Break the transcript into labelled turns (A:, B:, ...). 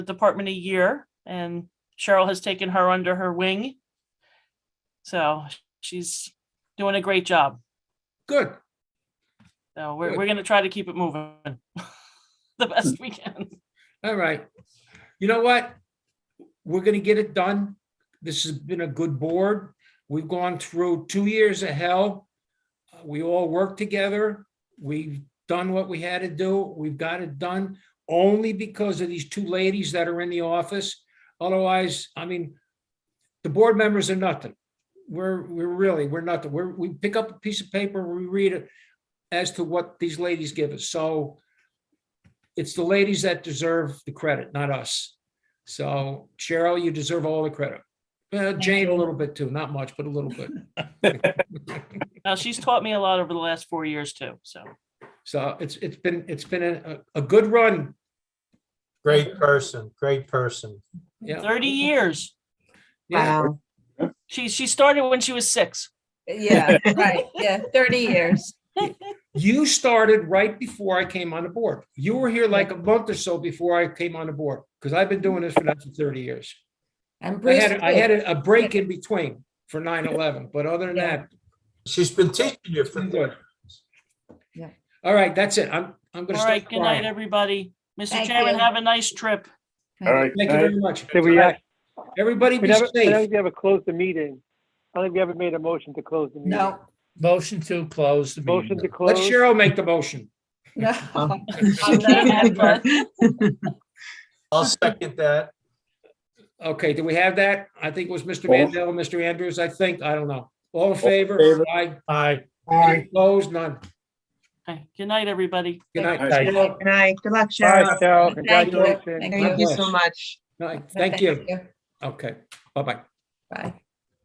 A: the department a year and Cheryl has taken her under her wing. So she's doing a great job.
B: Good.
A: So we're,
B: Good.
A: we're gonna try to keep it moving the best we can.
B: All right. You know what? We're gonna get it done. This has been a good board. We've gone through two years of hell. Uh, We all worked together. We've done what we had to do. We've got it done only because of these two ladies that are in the office. Otherwise, I mean, the board members are nothing. We're, we're really, we're nothing. We're, we pick up a piece of paper, we read it as to what these ladies give us. So it's the ladies that deserve the credit, not us. So Cheryl, you deserve all the credit. Uh, Jane, a little bit too, not much, but a little bit.
A: Now, she's taught me a lot over the last four years too, so.
B: So it's, it's been, it's been a, a a good run.
C: Great person, great person.
B: Yeah.
A: 30 years.
B: Yeah.
D: Wow.
A: She, she started when she was six.
D: Yeah, right. Yeah, 30 years.
B: You started right before I came on the board. You were here like a month or so before I came on the board, because I've been doing this for now for thirty years.
D: And
B: I
D: Bruce,
B: had, I had
D: too.
B: a a break in between for 9/11, but other than that,
C: She's been teaching you
B: it's
C: for
B: been good.
D: Yeah.
B: All right, that's it. I'm,
A: All
B: I'm gonna
A: right,
B: start
A: good night,
B: crying.
A: everybody. Mr.
D: Thank
A: Chairman,
D: you.
A: have a nice trip.
E: All right.
B: Thank you very much.
F: Did we, act-
B: Everybody
F: we
B: be
F: never, I don't
B: safe.
F: think we ever closed the meeting. I don't think we ever made a motion to close the meeting.
D: No,
G: Motion to close the
F: Motion to
G: meeting.
B: Let
F: close.
B: Cheryl make the motion.
D: no.
A: I'm not mad, but
C: I'll second that.
B: Okay, do we have that? I think it was Mr.
E: All-
B: Mandel, Mr. Andrews, I think, I don't know. All in favor?
E: favor.
B: Aye.
G: Aye.
B: Aye. Opposed, none.
A: Okay, Good night, everybody.
B: Good night.
G: Aye.
B: Cheryl.
H: Good night. Good
F: All
H: luck, Cheryl.
F: right, Cheryl,
D: Thank you.
F: congratulations.
D: Thank
H: Thank
D: you.
H: you so much.
B: Night. Thank you. Okay, bye-bye.
D: Bye.